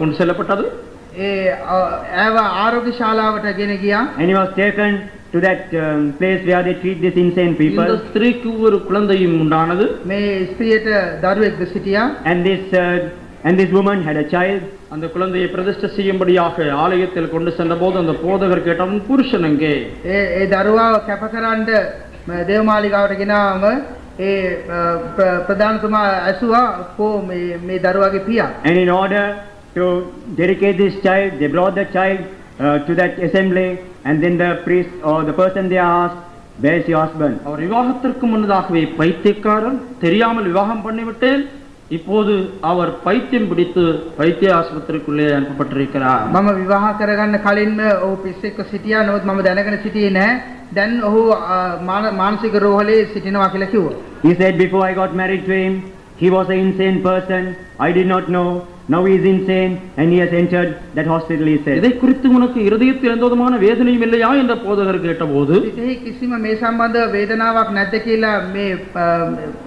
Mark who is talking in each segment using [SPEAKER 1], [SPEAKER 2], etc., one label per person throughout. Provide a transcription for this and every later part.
[SPEAKER 1] கொண்டு செல்லப்பட்டது
[SPEAKER 2] ඒ අ- ඇව ආරෝග්‍ය ශාලාවට ගෙන ගියා.
[SPEAKER 3] And he was taken to that um, place where they treat these insane
[SPEAKER 1] இந்த
[SPEAKER 3] people.
[SPEAKER 1] ஸ்திரீக்கு ஒரு குழந்தையும் உண்டானது
[SPEAKER 2] මේ ස්ත්‍රියට දරුවෙක්ද සිටියා.
[SPEAKER 3] And this, uh, and this woman had a child.
[SPEAKER 1] அந்த குழந்தையை பிரதிஷ்டை செய்யும்படியாக ஆலயத்தில் கொண்டு சென்றபோது அந்த போதகர் கேட்டார் "உன் புருஷன் எங்கே
[SPEAKER 2] ඒ ඒ දරුවාව කැපකරන්න ම- දේවමාලිගාවට ගෙනාම ඒ අ, ප්‍ර- ප්‍රධානතුමා ඇසුවා කෝ මේ මේ දරුවාගේ පියා.
[SPEAKER 3] And in order to dedicate this child, they brought the child uh, to that assembly, and then the priest or the person they asked, Where's your husband?
[SPEAKER 1] அவர் விவாகத்திற்கு முன்னதாகவே பைத்தியக்காரன் தெரியாமல் விவாகம் பண்ணிவிட்டேன் இப்போது அவர் பைத்தியம் பிடித்து பைத்திய ஆஸ்பத்திரிக்குள்ளே அனுப்பப்பட்டிருக்கிறார்
[SPEAKER 2] මම විවාහ කරගන්න කලින්ම ඔහු පිස්සෙක්ව සිටියා. නමුත් මම දැනගෙන සිටියේ නැහැ. දැන් ඔහු අ, මාන- මානසික රෝහලේ සිටිනවා කියලා කිව්වා.
[SPEAKER 3] He said, Before I got married to him, he was an insane person. I did not know. Now he is insane, and he has entered that hospital, he said.
[SPEAKER 1] இதை குறித்து உனக்கு இருதயத்தில் எந்த விதமான வேதனையும் இல்லையா என்ற போதகர் கேட்டபோது
[SPEAKER 2] සිතෙහි කිසිම මේ සම්බන්ධ වේදනාවක් නැද්ද කියලා මේ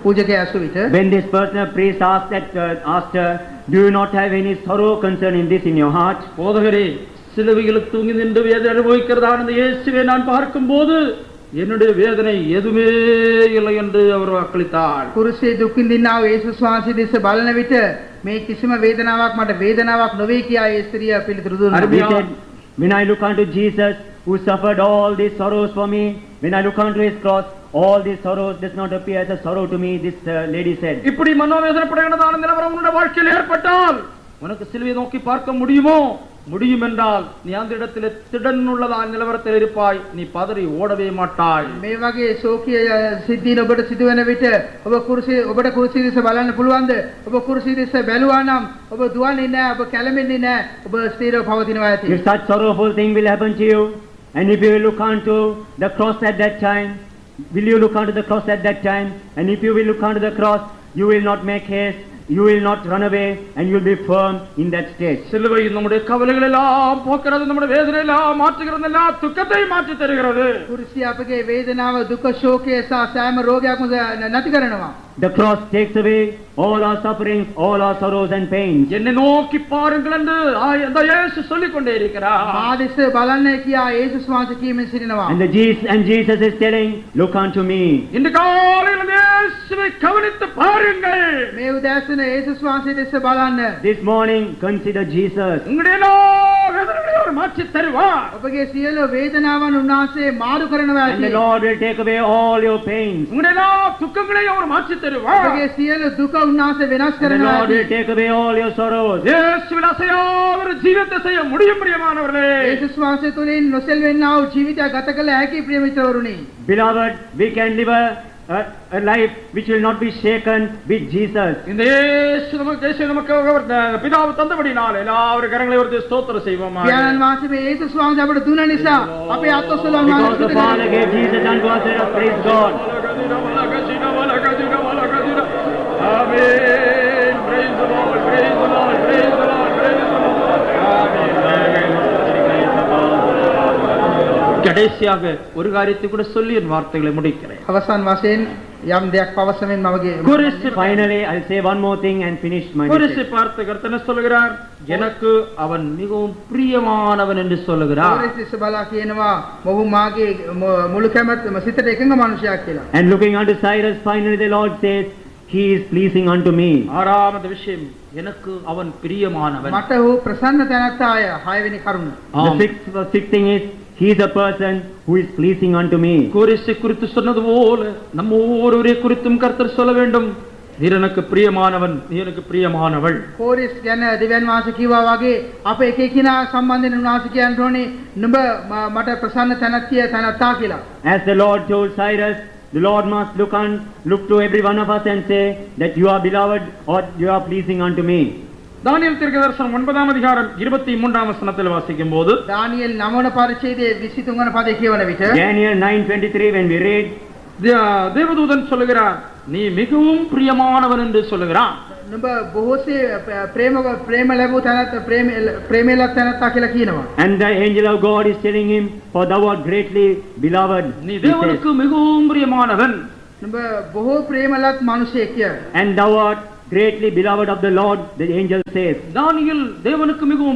[SPEAKER 2] පූජකයා ඇසු විට
[SPEAKER 3] When this personal priest asked, that, uh, asked her, Do you not have any sorrow concerning this in your heart?
[SPEAKER 1] போதகரே சிலுவையில் தூங்கி நின்று வேதனை அனுபவிக்கிறதான இந்த இயேசுவை நான் பார்க்கும்போது என்னுடைய வேதனை எதுவுமே இல்லை என்று அவர் வாக்களித்தார்
[SPEAKER 2] කුරුසේ දුක් විඳිනා වූ යේසුස් වහන්සේ දෙස බලන විට මේ කිසිම වේදනාවක් මට වේදනාවක් නොවේ කියා ඒ ස්ත්‍රිය පිළිතුරු දුන්නා.
[SPEAKER 1] Are
[SPEAKER 3] He
[SPEAKER 1] we-
[SPEAKER 3] said, When I look unto Jesus, who suffered all these sorrows for me, when I look unto his cross, all these sorrows does not appear as a sorrow to me, this uh, lady said.
[SPEAKER 1] இப்படி மனோவேதனைப்படுகிறதான நிலவரம் உன்னுடைய வாழ்க்கையில் ஏற்பட்டால் உனக்கு சிலுவையை நோக்கி பார்க்க முடியுமோ முடியும் என்றால் நீ அந்த இடத்திலே திடன் உள்ளதான நிலவரத்தில் இருப்பாய் நீ பதறி ஓடவே மாட்டாய்
[SPEAKER 2] මේ වගේ ශෝකීය සිද්ධීන් ඔබට සිදුවන විට ඔබ කුරුසේ ඔබට කුරුසිය දෙස බලන්න පුළුවන්ද? ඔබ කුරුසිය දෙස බැලුවා නම් ඔබ දුවන්නේ නැහැ, ඔබ කැළඹෙන්නේ නැහැ, ඔබ ස්ථිරව පවතිනවා ඇති.
[SPEAKER 3] If such sorrowful thing will happen to you, and if you will look unto the cross at that time, will you look unto the cross at that time? And if you will look unto the cross, you will not make haste, you will not run away, and you will be firm in that state.
[SPEAKER 1] சிலுவை நம்முடைய கவலைகள் எல்லாம் போக்கிறது நம்முடைய வேதனை எல்லாம் மாற்றுகிறது எல்லா துக்கத்தை மாற்றி தருகிறது
[SPEAKER 2] කුරුසිය අපගේ වේදනාව, දුක, ශෝකය සහ සෑම රෝගයක්ම නැති කරනවා.
[SPEAKER 3] The cross takes away all our sufferings, all our sorrows and pains.
[SPEAKER 1] என்னை நோக்கி பாருங்கள் என்று ஆய- அந்த இயேசு சொல்லிக் கொண்டே இருக்கிறார்
[SPEAKER 2] ආදෙස බලන්න කියා ඒසුස් වහන්සේ කියමින් සිටිනවා.
[SPEAKER 3] And the Jesus and Jesus is telling, look unto me.
[SPEAKER 1] இன்று காலையில் அந்த இயேசுவை கவனித்து பாருங்கள்
[SPEAKER 2] මේ උදෑසන ඒසුස් වහන්සේ දෙස බලන්න.
[SPEAKER 3] This morning consider Jesus.
[SPEAKER 1] உங்களுடைய எல்லா வேதனைகளையும் அவர் மாற்றி தருவார்
[SPEAKER 2] ඔබගේ සියලු වේදනාවන් උන්වහන්සේ මාරු කරනවා
[SPEAKER 3] And the
[SPEAKER 2] ඇති.
[SPEAKER 3] Lord will take away all your pains.
[SPEAKER 1] உங்களுடைய எல்லா துக்கங்களையும் அவர் மாற்றி தருவார்
[SPEAKER 2] ඔබගේ සියලු දුක උන්වහන්සේ වෙනස්
[SPEAKER 3] And the
[SPEAKER 2] කරනවා
[SPEAKER 3] Lord will
[SPEAKER 2] ඇති.
[SPEAKER 3] take away all your sorrows.
[SPEAKER 1] இயேசுவில் அசையாத ஒரு ஜீவத்தை செய்ய முடியும் பிரியமானவர்களே
[SPEAKER 2] ඒසුස් වහන්සේ තුළින් නොසෙල්වෙන්නා වූ ජීවිතයක් ගත කළ හැකි ප්‍රිය මිත්‍රවරුනි.
[SPEAKER 3] Beloved, we can live a, a, a life which will not be shaken with Jesus.
[SPEAKER 1] இந்த இயேசு நமக்கு இயேசு நமக்கு அவர் த- பிதாவு தந்தபடினால் எல்லாரும் கரங்களை ஒரு ஸ்தோத்திரம் செய்வோமா
[SPEAKER 2] යානන් වහන්සේ මේ ඒසුස් වහන්සේ අපට දුන නිසා අපේ අත්ඔසල
[SPEAKER 3] Because the Father
[SPEAKER 2] වහන්සේ
[SPEAKER 3] gave Jesus unto us, let us praise God.
[SPEAKER 1] ஆமென். Praise the Lord, praise the Lord, praise the Lord, praise the Lord. ஆமென், ஆமென். கடைசியாக ஒரு காரியத்தை கூட சொல்லி என் வார்த்தைகளை முடிக்கிறேன்
[SPEAKER 2] අවසන් වශයෙන් යම් දෙයක් පවසමින් මමගේ
[SPEAKER 1] குருசு
[SPEAKER 3] Finally, I'll say one more thing and finish my
[SPEAKER 1] குருசை
[SPEAKER 3] message.
[SPEAKER 1] பார்த்து கர்த்தனை சொல்லுகிறார் எனக்கு அவன் மிகவும் பிரியமானவன் என்று சொல்லுகிறார்
[SPEAKER 2] පොරස් දෙස බලා කියනවා මොහු මාගේ මො- මුළු කැමැත්තම සිතට එකඟ මනුෂ්‍යයෙක් කියලා.
[SPEAKER 3] And looking unto Cyrus, finally the Lord says, He is pleasing unto me.
[SPEAKER 1] ஆறாவது விஷயம் எனக்கு அவன் பிரியமானவன்
[SPEAKER 2] මට හෝ ප්‍රසන්න තැනැත්තාය හයවෙනි කරුණ.
[SPEAKER 3] The
[SPEAKER 1] ஆம்.
[SPEAKER 3] sixth, the sixth thing is, He is a person who is pleasing unto me.
[SPEAKER 1] கோரிசை குறித்து சொன்னது போல நம்ம ஒவ்வொருவரை குறித்தும் கர்த்தர் சொல்ல வேண்டும் நீ எனக்கு பிரியமானவன் நீ எனக்கு பிரியமானவள்
[SPEAKER 2] කෝරිස් ගැන දෙවන් වාස කිව්වා වගේ අප එක එකිනා සම්බන්ධයෙන් උන්වහන්සේ කියන්න ඕනේ නුඹ ම- මට ප්‍රසන්න තැනැත්තිය තැනැත්තා කියලා.
[SPEAKER 3] As the Lord told Cyrus, the Lord must look on, look to every one of us and say that you are beloved or you are pleasing unto me.
[SPEAKER 1] தானியல் தீர்க்கதரிசனம் ஒன்பதாம் அதிகாரம் இருபத்தி மூன்றாம் வசனத்தில் வாசிக்கும் போது
[SPEAKER 2] දානියෙල් නවන පරිච්ඡේදයේ 23 වන පදේ කියවන විට
[SPEAKER 3] Daniel 9:23 when we read,
[SPEAKER 1] தே- தேவதூதன் சொல்லுகிறார் நீ மிகவும் பிரியமானவன் என்று சொல்லுகிறான்
[SPEAKER 2] නුඹ බොහෝසේ ප- ප්‍රේම ප්‍රේම ලැබූ තැනැත්ත ප්‍රේම ප්‍රේමලත් තැනැත්තා කියලා කියනවා.
[SPEAKER 3] and the angel of God is telling him, for thou art greatly beloved.
[SPEAKER 1] நீ
[SPEAKER 3] he
[SPEAKER 1] தேவனுக்கு
[SPEAKER 3] says,
[SPEAKER 1] மிகவும் பிரியமானவன்
[SPEAKER 2] නුඹ බොහෝ ප්‍රේමලත් මිනිසෙක් කියලා.
[SPEAKER 3] and thou art greatly beloved of the Lord, the angel says.
[SPEAKER 1] தானியேல் தேவனுக்கு மிகவும்